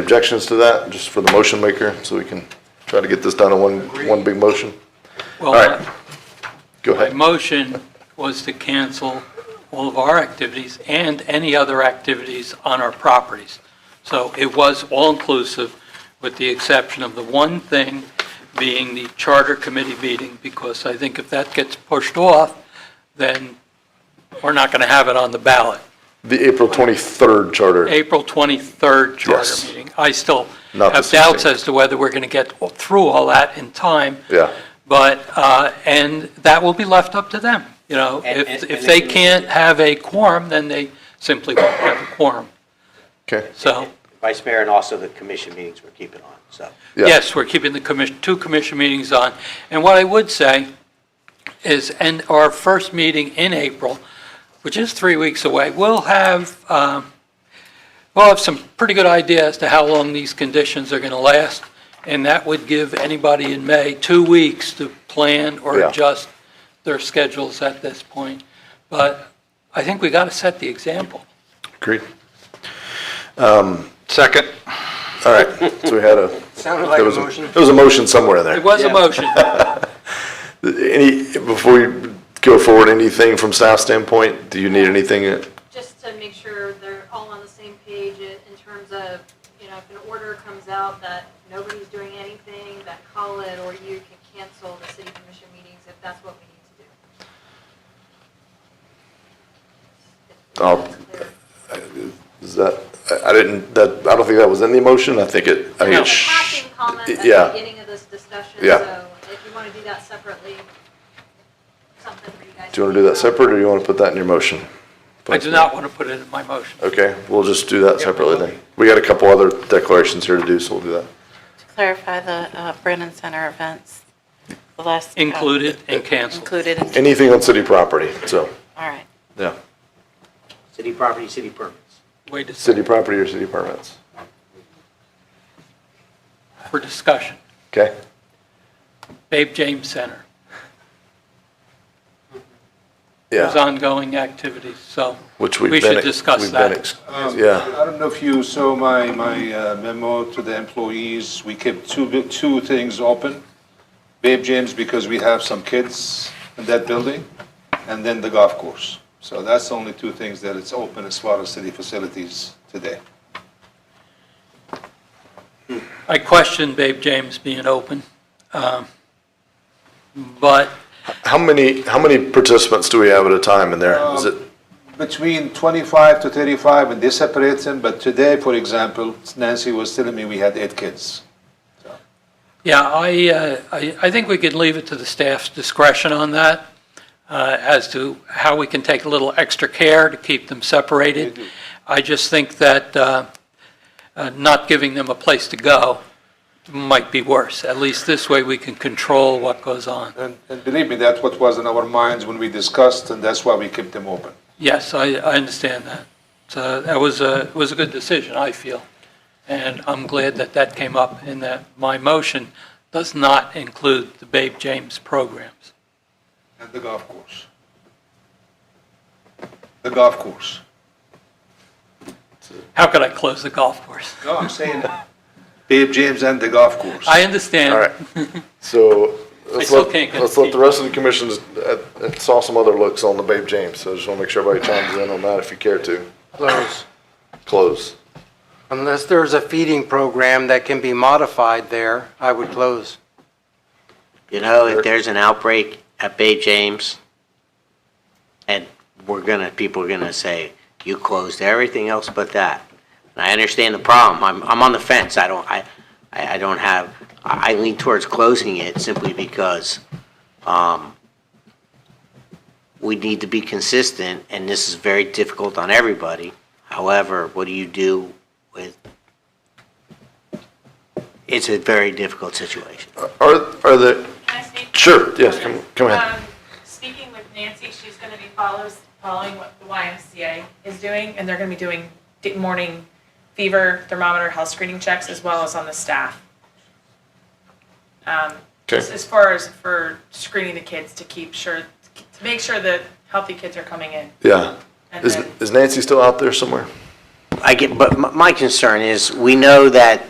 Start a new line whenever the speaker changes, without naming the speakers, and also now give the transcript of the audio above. Objections to that, just for the motion maker, so we can try to get this done in one, one big motion?
Well,
All right.
my-
Go
my
ahead.
motion was to cancel all of our activities and any other activities on our properties. So it was all-inclusive, with the exception of the one thing being the charter committee meeting, because I think if that gets pushed off, then we're not going to have it on the ballot.
The April 23rd charter,
April 23rd
Yes.
charter meeting. I still
Not the
have doubts
16th.
as to whether we're going to get through all that in time.
yeah.
But, uh, and that will be left up to them, you know?
And-
If,
and-
if
and
they
if you-
can't have a quorum, then they simply won't have a quorum.
Okay.
So,
Vice Mayor, and also the commission meetings we're keeping on, so.
Yeah.
yes, we're keeping the commission, two commission meetings on. And what I would say is, and our first meeting in April, which is three weeks away, we'll have, um, we'll have some pretty good idea as to how long these conditions are going to last. And that would give anybody in May two weeks to plan or
Yeah.
adjust their schedules at this point. But I think we got to set the example.
Agreed.
Second.
All right, so we had a.
Sounded
there was There was a motion somewhere in there.
It was a motion.
Any, before we go forward, anything from staff standpoint, do you need anything?
just to make sure they're all on the same page i- in terms of, you know, if an order comes out that nobody's doing anything, that call it, or you can cancel the city commission meetings if that's what we need to do. If- if
I'll-
that's clear.
Is that, I I didn't, that, I don't think that was in the motion, I think it, I
There
think it
was a
sh-
passing comment at
yeah.
the beginning of this discussion,
Yeah.
so if you want to do that separately, something for you guys.
Do you want to do that separate, or you want to put that in your motion?
I do not want to put it in my motion.
Okay, we'll just do that separately then. We got a couple other declarations here to do, so we'll do that.
To clarify the uh, Brennan Center events, the last. uh,
Included and canceled.
Included, in-
Anything on city property, so,
all right.
yeah.
City property, city permits.
Wait a
City
second,
property or city permits,
for discussion.
okay?
Babe James Center. There's
Yeah,
ongoing activities, so
which we've
we
been.
should
ex-
discuss
we've been
that.
ex-
Um,
Yeah,
I don't know if you saw my, my uh, memo to the employees. We kept two, bi- two things open. Babe James, because we have some kids in that building, and then the golf course. So that's the only two things that it's open as far as city facilities today.
I question Babe James being open, um, but
how many, how many participants do we have at a time in there? Is it,
Um,
Between 25 to 35, and they separate them, but today, for example, Nancy was telling me we had eight kids.
Yeah, I, uh, I I think we could leave it to the staff's discretion on that, uh, as to how we can take a little extra care to keep them separated. I just think that uh, uh, not giving them a place to go might be worse. At least this way, we can control what goes on.
And and believe me, that's what was in our minds when we discussed, and that's why we kept them open.
Yes, I, I understand that. So that was a, was a good decision, I feel. And I'm glad that that came up and that my motion does not include the Babe James programs.
And the golf course. The golf course.
How could I close the golf course?
No, I'm saying. Babe James and the golf course.
I understand.
all right. So, let's
still
let,
can't get
let's let the rest of the commissions, uh, uh, saw some other looks on the Babe James, so I just want to make sure everybody chimes in on that if you care to.
Close.
Close.
Unless there's a feeding program that can be modified there, I would close.
You know, if there's an outbreak at Bay James, and we're gonna, people are gonna say, you closed everything else but that. And I understand the problem, I'm, I'm on the fence, I don't, I, I I don't have, I I lean towards closing it simply because, um, we need to be consistent, and this is very difficult on everybody. However, what do you do with? It's a very difficult situation.
Are, are the,
Can I speak?
sure, yes, come, come ahead.
Um, Speaking with Nancy, she's going to be follows, following what the YMCA is doing, and they're going to be doing di- morning fever thermometer health screening checks as well as on the staff. Um,
Okay.
Just as far as for screening the kids to keep sure, to make sure that healthy kids are coming in.
Yeah.
And
Is,
then-
is Nancy still out there somewhere?
I get, but my- my concern is, we know that